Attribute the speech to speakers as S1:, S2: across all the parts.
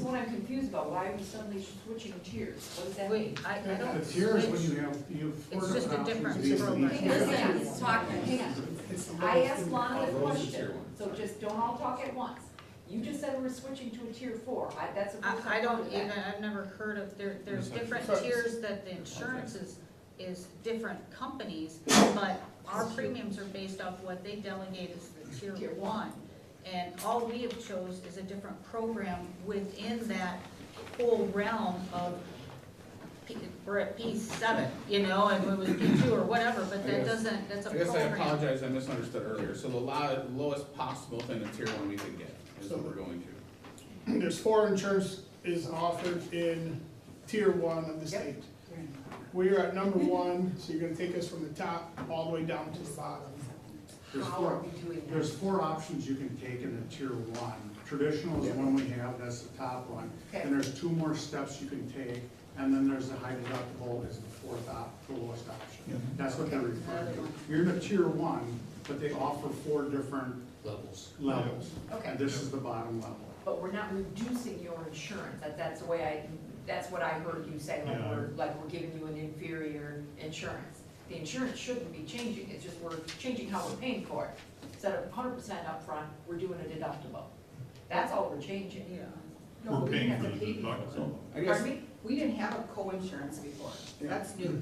S1: confused about why we suddenly switching tiers. What does that mean?
S2: Wait, I, I don't.
S3: The tiers, when
S2: switch.
S3: you have, you have four
S2: It's just a
S3: different
S2: different
S3: options.
S2: program.
S3: These-
S1: Hang on,
S3: these-
S1: hang on, let's talk, hang on.
S3: It's the
S1: I
S3: lowest
S1: asked
S3: in-
S1: Lana the
S4: Oh, those are tier
S1: question,
S4: one,
S1: so
S4: sorry.
S1: just don't all talk at once. You just said we're switching to a tier four. I, that's the first
S2: I, I
S1: I've heard
S2: don't
S1: of
S2: even,
S1: that.
S2: I've never heard of, there, there's
S4: Yes, I-
S2: different
S4: so-
S2: tiers that the insurance is, is different companies, but our premiums are based off what they delegate as the tier
S1: Tier one.
S2: one. And all we have chose is a different program within that whole realm of, P- we're at P seven, you know, and it was P two or whatever, but
S4: I
S2: that
S4: guess-
S2: doesn't, that's a
S4: I guess I
S2: program.
S4: apologize, I misunderstood earlier, so the lo- lowest possible thing a tier one we could get is what we're going to.
S3: There's four insurance is offered in tier one of the state. We are at number one, so you're gonna take us from the top all the way down to the bottom.
S5: There's
S1: How are
S5: four,
S1: we doing that?
S5: there's four options you can take in the tier one. Traditional is the one we have, that's the top one.
S1: Okay.
S5: And there's two more steps you can take, and then there's the high deductible is the fourth op, the lowest option. That's what they're referring to. You're in a tier one, but they offer four different
S4: Levels.
S5: levels.
S1: Okay.
S5: And this is the bottom level.
S1: But we're not reducing your insurance, that, that's the way I, that's what I heard you say, like
S5: Yeah.
S1: we're, like we're giving you an inferior insurance. The insurance shouldn't be changing, it's just we're changing how we're paying for it. Instead of hundred percent upfront, we're doing a deductible. That's all we're changing.
S2: Yeah.
S6: We're
S1: No, but we
S6: paying
S1: have to
S6: for the
S1: pay people.
S6: deductible.
S4: I guess,
S6: Pardon me? We didn't have a co-insurance before. That's new.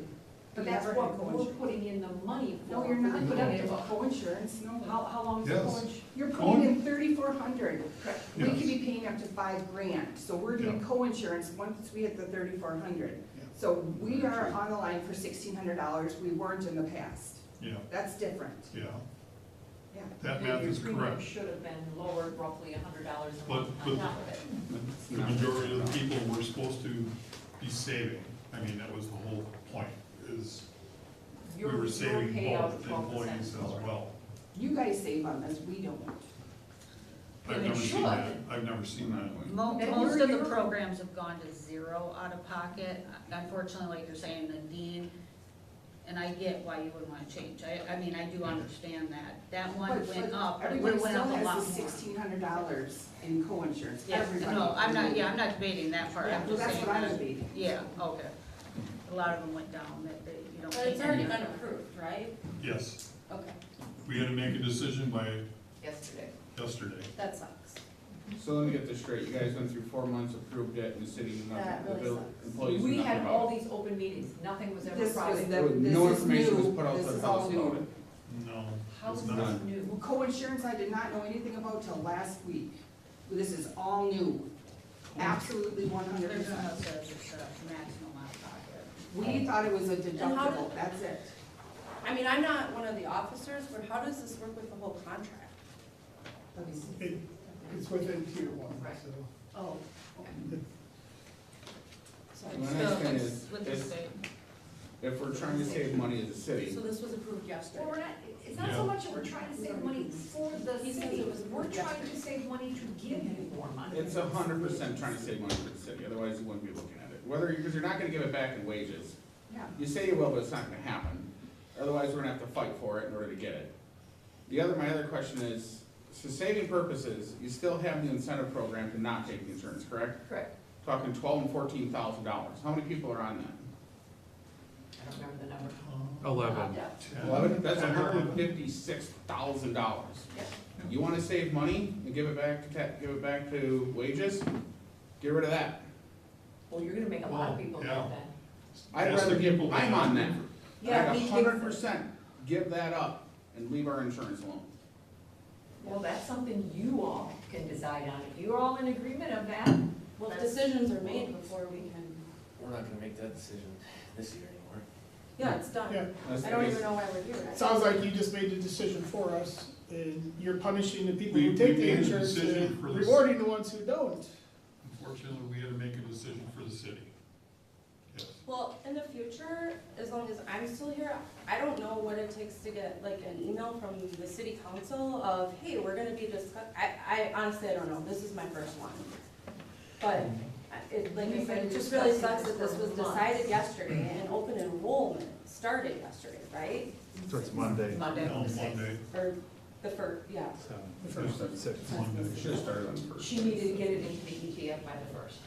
S1: But
S6: We
S1: that's
S6: never
S1: what
S6: had
S1: we're
S6: co-insurance.
S1: putting in the money for.
S6: No, you're not
S1: We're
S6: putting
S1: putting
S6: in a co-insurance,
S1: How,
S6: no.
S1: how long is the
S6: Yes.
S1: coach?
S6: You're putting in thirty-four hundred. We
S3: Yes.
S6: could be paying up to five grand, so we're doing
S3: Yeah.
S6: co-insurance once we hit the thirty-four hundred.
S3: Yeah.
S6: So we are on the line for sixteen hundred dollars, we weren't in the past.
S7: Yeah,
S6: That's different,
S7: yeah,
S6: yeah.
S7: that
S1: Your-
S7: math is
S1: Your premium
S7: correct.
S1: should have been lowered roughly a hundred dollars a
S7: But-
S1: month on
S7: but-
S1: top of it.
S7: The majority of the people were supposed to be saving. I mean, that was the whole point, is we
S1: Your-
S7: were
S1: your
S7: saving
S1: payout
S7: both
S1: is 12%
S7: employees as
S1: lower.
S7: well.
S6: You guys save on this, we don't.
S7: I've
S1: And it
S7: never seen
S1: should.
S7: that, I've never seen that.
S2: Mo-
S6: That
S2: Most
S6: you're-
S2: of the
S6: you're-
S2: programs have gone to zero out of pocket. Unfortunately, like you're saying, Nadine, and I get why you would wanna change. I, I mean, I do understand that. That one
S6: But-
S2: went
S6: but
S2: up, but it
S6: Everybody
S2: went
S6: still
S2: up a
S6: has
S2: lot
S6: the
S2: more.
S6: sixteen hundred dollars in co-insurance,
S2: Yeah,
S6: everybody.
S2: no, I'm not, yeah, I'm not debating that part.
S6: Yeah,
S2: I'm just
S6: that's
S2: saying
S6: what I
S2: that-
S6: was debating.
S2: Yeah, okay. A lot of them went down, that, that you don't.
S8: But it's already been approved, right?
S7: Yes,
S8: Okay,
S7: we had to make a decision by
S1: Yesterday.
S7: yesterday.
S8: that sucks.
S4: so let me get this straight, you guys went through four months, approved it, and the city, knew nothing-
S8: That
S4: the
S8: really
S4: bill-
S8: sucks.
S4: employees knew
S1: We
S4: nothing
S1: had
S4: about
S1: all
S4: it.
S1: these open meetings, nothing was ever
S6: This was
S1: private.
S6: the-
S4: There was
S6: this
S4: No
S6: is
S4: information was
S6: new.
S4: put out
S6: This
S4: to the
S6: is
S4: house
S6: all
S4: about
S6: new.
S4: it.
S7: No,
S1: How
S7: it's
S1: is
S7: not.
S1: this new?
S6: Well, co-insurance I did not know anything about till last week. This is all new, absolutely one hundred
S2: There's no
S6: percent.
S2: such as a maximum out of pocket.
S6: We thought it was a
S8: And how
S6: deductible,
S8: did-
S6: that's it.
S8: I mean, I'm not one of the officers, but how does this work with the whole contract?
S6: Let me see.
S3: It- It's within tier one,
S1: Right.
S3: so.
S8: Oh.
S4: My
S2: So
S4: next thing
S2: it's
S4: is,
S2: With the
S4: is
S2: state.
S4: if we're trying to save money as a city,
S8: So this was
S1: Well,
S8: approved
S1: we're
S8: yesterday?
S1: not, it's not so
S7: Yeah.
S1: much that we're trying to save money for the
S8: He says
S1: city,
S8: it was
S1: we're trying to
S8: yesterday.
S1: save money to give you more money.
S4: It's a hundred percent trying to save money for the city, otherwise you wouldn't be looking at it. Whether, because you're not gonna give it back in wages.
S6: Yeah.
S4: You say you will, but it's not gonna happen. Otherwise, we're gonna have to fight for it in order to get it. The other, my other question is, for saving purposes, you still have the incentive program to not take the insurance, correct?
S1: Correct.
S4: Talking twelve and fourteen thousand dollars. How many people are on that?
S1: I don't remember the number.
S9: Eleven.
S1: Yeah.
S7: Ten.
S4: That's
S7: Ten or
S4: hundred and
S7: eleven.
S4: fifty-six thousand dollars.
S1: Yeah.
S4: You wanna save money and give it back to, ta- give it back to wages? Get rid of that.
S1: Well, you're gonna make a lot of
S7: Well,
S1: people do
S7: yeah.
S1: that then.
S4: I'd
S7: Ask the
S4: rather give,
S7: people that
S4: I'm
S7: have
S4: on
S7: it.
S4: that.
S1: Yeah,
S4: I'd
S1: me
S4: a
S1: too.
S4: hundred percent give that up and leave our insurance alone.
S1: Well, that's something you all can decide on. If you're all in agreement of that,
S8: Well,
S1: that's-
S8: decisions are made before we can,
S10: We're not gonna make that decision this year anymore.
S8: yeah, it's done.
S3: Yeah.
S4: That's
S8: I don't
S4: the
S8: even
S4: case.
S8: know why we're here.
S3: It Sounds like you just made the decision for us, and you're punishing the people
S7: We-
S3: who
S7: we
S3: take the
S7: made a
S3: insurance
S7: decision
S3: and
S7: for the-
S3: rewarding the ones who don't.
S7: Unfortunately, we had to make a decision for the city. Yes.
S8: Well, in the future, as long as I'm still here, I don't know what it takes to get like an email from the city council of, hey, we're gonna be discuss, I, I honestly, I don't know, this is my first one. But, I- it, like I said, it just really sucks that this was decided yesterday and open enrollment started yesterday, right?
S9: So it's Monday.
S1: Monday.
S7: No, Monday,
S8: Or the first, yeah.
S9: Seven.
S3: The first
S9: Six.
S7: Monday.
S4: Should've started on the first.
S1: She needed to get it into the ETF by the first.